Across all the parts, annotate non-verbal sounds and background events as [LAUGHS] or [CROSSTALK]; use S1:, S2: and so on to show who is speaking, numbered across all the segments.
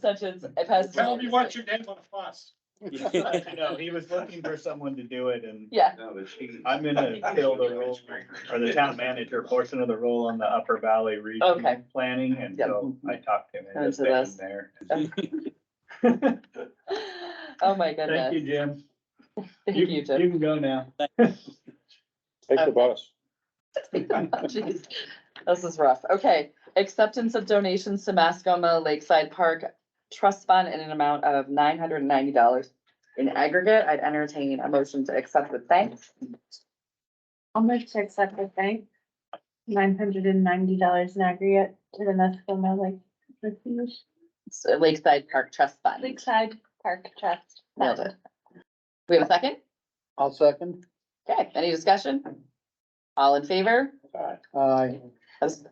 S1: such as a pest.
S2: Tell me what you did with us.
S3: No, he was looking for someone to do it and
S1: Yeah, [LAUGHS]
S4: No, the cheese.
S3: I'm gonna fill the role or the town manager portion of the role on the Upper Valley
S1: Okay.
S3: Region Planning and so I talked to him
S1: And
S3: and just
S1: so
S3: hit him
S1: that's-
S3: there.
S1: oh my
S3: Thank you,
S1: goodness.
S3: Jim.
S1: Thank you, Jim.
S3: You can go now.
S5: Thanks for boss.
S1: [LAUGHS] Jeez, This is rough. Okay, acceptance of donations to Mascoma Lakeside Park Trust Fund in an amount of nine hundred and ninety dollars. In aggregate, I'd entertain a motion to accept with thanks.
S6: I'll move to accept the thanks. Nine hundred and ninety dollars in aggregate to the Nescoma Lake. Refuge-
S1: So Lakeside Park Trust Fund.
S6: Lakeside Park Trust.
S1: Nailed it. We have a second?
S5: I'll second.
S1: Okay, any discussion? All in favor?
S5: Aye.
S1: As-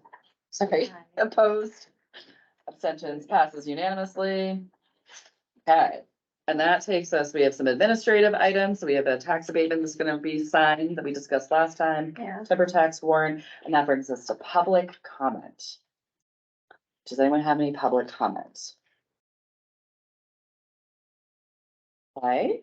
S1: Sorry, [LAUGHS] opposed? Abstentions passes unanimously. Okay, and that takes us, we have some administrative items. We have a tax abatement that's gonna be signed that we discussed last time.
S6: Yeah.
S1: Timber tax warrant, and that brings us to public comment. Does anyone have any public comments? Okay.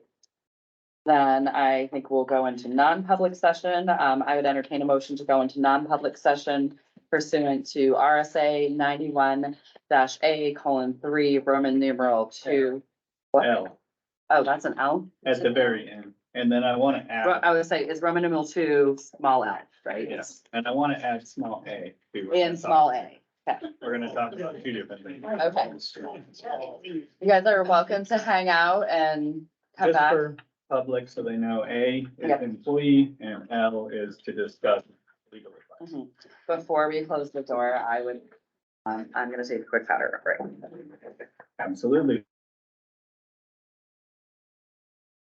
S1: Then I think we'll go into non-public session. Um, I would entertain a motion to go into non-public session pursuant to RSA ninety-one dash A colon three, Roman numeral two.
S3: L
S1: Oh, that's an L?
S3: at the very end. And then I wanna
S1: Ro-
S3: add,
S1: I would say it's Roman numeral two, small L, right?
S3: yes, and I wanna add small a. to what we're
S1: And small A.
S3: talking- We're gonna talk about two different things.
S1: Okay. You guys are welcome to hang out and come
S3: Just
S1: back.
S3: for public, so they know A
S1: Yep.
S3: is employee and L is to discuss legal advice.
S1: Mhm. Before we close the door, I would, um, I'm gonna take a quick powder break.
S3: Absolutely.